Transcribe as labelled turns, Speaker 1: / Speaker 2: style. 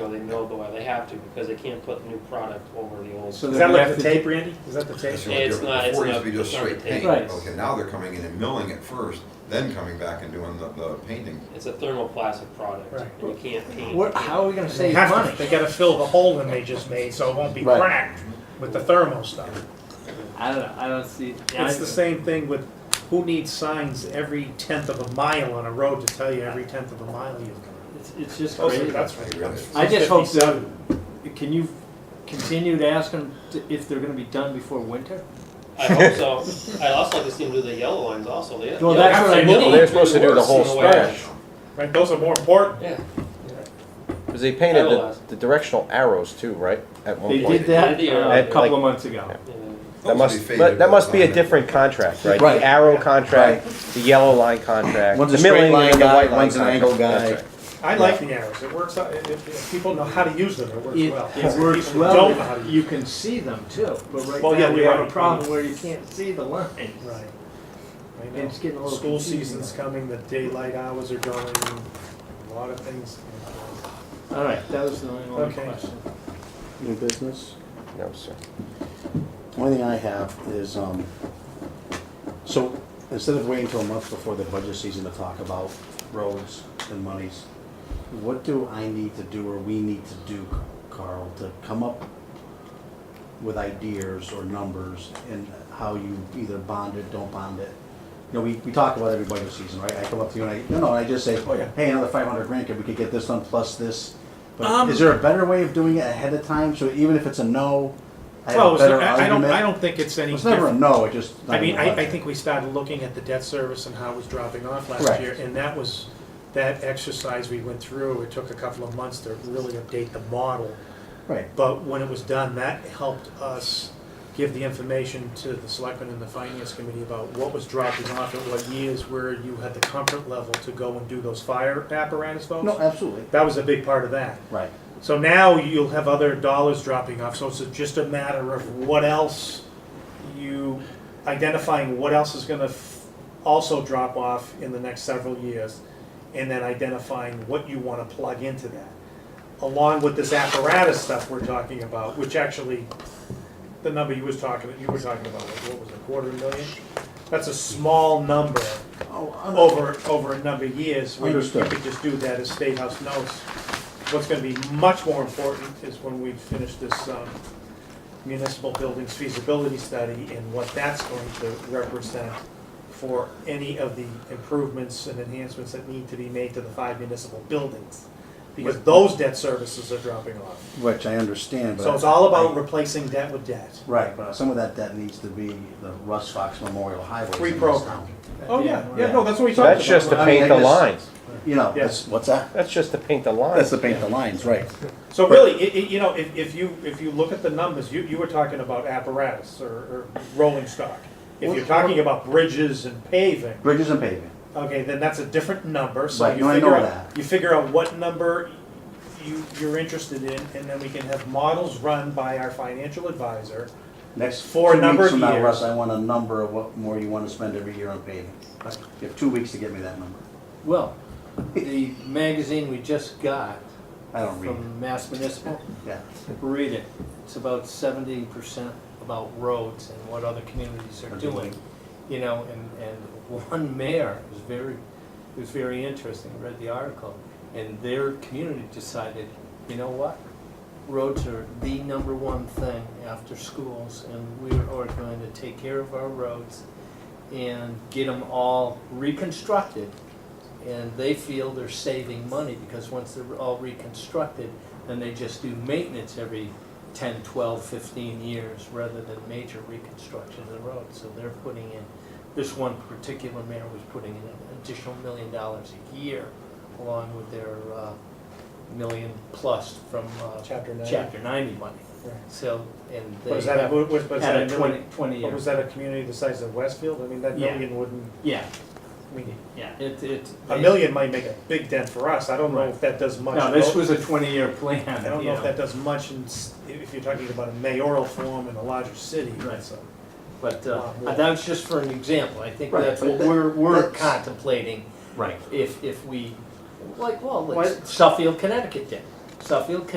Speaker 1: or they mill the way they have to because they can't put the new product over the old.
Speaker 2: So
Speaker 3: Is that
Speaker 2: then we have
Speaker 3: like the
Speaker 2: to-
Speaker 3: tape, Randy? Is that the tape?
Speaker 4: That's
Speaker 1: Yeah,
Speaker 4: what
Speaker 1: it's
Speaker 4: they're-
Speaker 1: not- it's
Speaker 4: Before it used
Speaker 1: not-
Speaker 4: to be just
Speaker 1: it's not
Speaker 4: straight paint.
Speaker 2: Right.
Speaker 4: Okay, now they're coming in and milling it first, then coming back and doing the, the painting.
Speaker 1: It's a thermoplastic product
Speaker 3: Right.
Speaker 1: and you can't paint.
Speaker 2: What, how are we gonna
Speaker 3: They
Speaker 2: save
Speaker 3: have to-
Speaker 2: money?
Speaker 3: They gotta fill the hole that they just made, so it won't be
Speaker 2: Right.
Speaker 3: cracked with the thermal stuff.
Speaker 5: I don't know. I don't see. I-
Speaker 3: It's the same thing with, who needs signs every tenth of a mile on a road to tell you every tenth of a mile you've gone?
Speaker 5: It's, it's just
Speaker 3: Those are-
Speaker 5: crazy.
Speaker 3: That's
Speaker 4: I
Speaker 3: right.
Speaker 4: really-
Speaker 5: I just hope that.
Speaker 3: 57.
Speaker 5: Can you continue to ask them to, if they're going to be done before winter?
Speaker 1: I hope so. I'd also like to see them do the yellow lines also. They-
Speaker 5: Well,
Speaker 1: yeah,
Speaker 5: that's what I
Speaker 1: they mill it
Speaker 5: mean. Well,
Speaker 6: they're supposed to do the
Speaker 1: worse
Speaker 6: whole
Speaker 1: in a way.
Speaker 6: stretch.
Speaker 3: Right, those are more important.
Speaker 1: Yeah.
Speaker 6: Because they painted the,
Speaker 1: Otherwise.
Speaker 6: the directional arrows too, right? At one
Speaker 5: They
Speaker 6: point.
Speaker 5: did that
Speaker 1: Did they,
Speaker 5: uh,
Speaker 1: or-
Speaker 5: a
Speaker 6: At,
Speaker 5: couple
Speaker 6: like-
Speaker 5: of months ago.
Speaker 1: Yeah.
Speaker 6: That must,
Speaker 4: faded
Speaker 6: but that
Speaker 4: all
Speaker 6: must be
Speaker 4: the
Speaker 6: a
Speaker 4: time.
Speaker 6: different contract, right?
Speaker 2: Right.
Speaker 6: The arrow contract, the yellow line contract,
Speaker 2: One's a
Speaker 6: the
Speaker 2: straight
Speaker 6: milling,
Speaker 2: line
Speaker 6: and the
Speaker 2: guy,
Speaker 6: white line
Speaker 2: one's an angle
Speaker 6: contract. That's
Speaker 2: guy.
Speaker 6: right.
Speaker 3: I like the arrows, it works, out- if, if people know how to use them, it works
Speaker 5: It,
Speaker 3: well.
Speaker 5: it works
Speaker 3: People
Speaker 5: well.
Speaker 3: don't know how to
Speaker 5: if
Speaker 3: use
Speaker 5: You can see them too, but right
Speaker 3: Well,
Speaker 5: now
Speaker 3: yeah,
Speaker 5: we
Speaker 3: you're
Speaker 5: have
Speaker 3: right.
Speaker 5: a problem where you can't see the lines.
Speaker 3: them. Right. I know.
Speaker 5: It's getting a little
Speaker 3: School
Speaker 5: confusing.
Speaker 3: season's coming, the daylight hours are going, a lot of things.
Speaker 5: All right, that was the only one
Speaker 3: Okay.
Speaker 5: question.
Speaker 2: New business?
Speaker 6: No, sir.
Speaker 2: One thing I have is, um, so instead of waiting until a month before the budget season to talk about roads and monies, what do I need to do or we need to do, Carl, to come up with ideas or numbers and how you either bond it, don't bond it? You know, we, we talk about every budget season, right? I come up to you and I, no, no, I just say, oh, hey, another five hundred grand, could we could get this done plus this? But
Speaker 3: Um,
Speaker 2: is there a better way of doing it ahead of time? So even if it's a no, I have
Speaker 3: Well,
Speaker 2: a better
Speaker 3: I don't, I
Speaker 2: argument?
Speaker 3: don't think it's any
Speaker 2: It's never a
Speaker 3: different.
Speaker 2: no, it just.
Speaker 3: I mean, I, I think we started looking at the debt service and how it was dropping off last
Speaker 2: Correct.
Speaker 3: year, and that was, that exercise we went through, it took a couple of months to really update the model.
Speaker 2: Right,
Speaker 3: But when it was done, that helped us give the information to the selectmen and the finance committee about what was dropping off at what years, where you had the comfort level to go and do those fire apparatus votes.
Speaker 2: no, absolutely,
Speaker 3: That was a big part of that.
Speaker 2: right.
Speaker 3: So now you'll have other dollars dropping off, so it's just a matter of what else you, identifying what else is gonna f- also drop off in the next several years, and then identifying what you wanna plug into that. Along with this apparatus stuff we're talking about, which actually, the number you was talking, you were talking about, like, what was it, quarter million? That's a small number over, over a number of years, where you
Speaker 2: Understood.
Speaker 3: could just do that as State House notes. What's gonna be much more important is when we finish this um, municipal buildings feasibility study and what that's going to represent for any of the improvements and enhancements that need to be made to the five municipal buildings. Because those debt services are dropping off.
Speaker 2: Which I understand, but.
Speaker 3: So it's all about
Speaker 2: I-
Speaker 3: replacing debt with debt.
Speaker 2: Right, but some of that, that needs to be the Russ Fox Memorial Highway.
Speaker 3: Reprogrammed. Oh, yeah, yeah, no, that's what we talked about.
Speaker 6: That's just to
Speaker 2: I mean,
Speaker 6: paint
Speaker 2: I
Speaker 6: the
Speaker 2: just-
Speaker 6: lines.
Speaker 2: You know,
Speaker 3: Yes.
Speaker 2: that's, what's that?
Speaker 6: That's just to paint the lines.
Speaker 2: That's to paint the lines, right.
Speaker 3: So really, i i you know, if, if you, if you look at the numbers, you, you were talking about apparatus or, or rolling stock. If you're talking about bridges and paving,
Speaker 2: Bridges and paving,
Speaker 3: okay, then that's a different number, so
Speaker 2: Right,
Speaker 3: you
Speaker 2: no, I
Speaker 3: figure
Speaker 2: know
Speaker 3: out,
Speaker 2: that.
Speaker 3: you figure out what number you, you're interested in, and then we can have models run by our financial advisor.
Speaker 2: next.
Speaker 3: For a
Speaker 2: two
Speaker 3: number
Speaker 2: weeks
Speaker 3: of
Speaker 2: from now,
Speaker 3: years.
Speaker 2: Russ, I want a number of what more you wanna spend every year on paving. You have two weeks to get me that number.
Speaker 5: Well, the magazine we just got
Speaker 2: I don't read,
Speaker 5: from Mass Municipal.
Speaker 2: yeah.
Speaker 5: Read it. It's about seventy percent about roads and what other communities are
Speaker 2: Are
Speaker 5: doing.
Speaker 2: doing.
Speaker 5: You know, and, and one mayor was very, it was very interesting, I read the article. And their community decided, you know what? Roads are the number one thing after schools and we are going to take care of our roads and get them all reconstructed. And they feel they're saving money because once they're all reconstructed, then they just do maintenance every 10, 12, 15 years rather than major reconstruction of the road. So they're putting in, this one particular mayor was putting in an additional million dollars a year along with their uh, million plus from uh,
Speaker 3: Chapter nine.
Speaker 5: Chapter 90 money. So, and they
Speaker 3: But is that, a-
Speaker 5: have
Speaker 3: what- what- but is
Speaker 5: had
Speaker 3: that
Speaker 5: a
Speaker 3: a million,
Speaker 5: 20, 20
Speaker 3: but
Speaker 5: year.
Speaker 3: was that a community the size of Westfield? I mean, that
Speaker 5: Yeah.
Speaker 3: million wouldn't,
Speaker 5: Yeah,
Speaker 3: I mean,
Speaker 5: yeah, it, it.
Speaker 3: a
Speaker 5: they-
Speaker 3: million might make a big dent for us, I don't know
Speaker 5: Right.
Speaker 3: if that does much.
Speaker 5: No, this
Speaker 3: Well,
Speaker 5: was a 20-year plan.
Speaker 3: I don't
Speaker 5: you
Speaker 3: know if that does much in, s- if you're talking about a mayoral form in a larger city,
Speaker 5: Right.
Speaker 3: so.
Speaker 5: But uh,
Speaker 3: Wow.
Speaker 5: that was just for an example. I think
Speaker 2: Right,
Speaker 5: that's
Speaker 2: but
Speaker 5: what
Speaker 2: that-
Speaker 5: we're, we're
Speaker 2: that's-
Speaker 5: contemplating
Speaker 2: Right.
Speaker 5: if, if we, like, well,
Speaker 2: Why-
Speaker 5: like Suffield, Connecticut did. Suffield,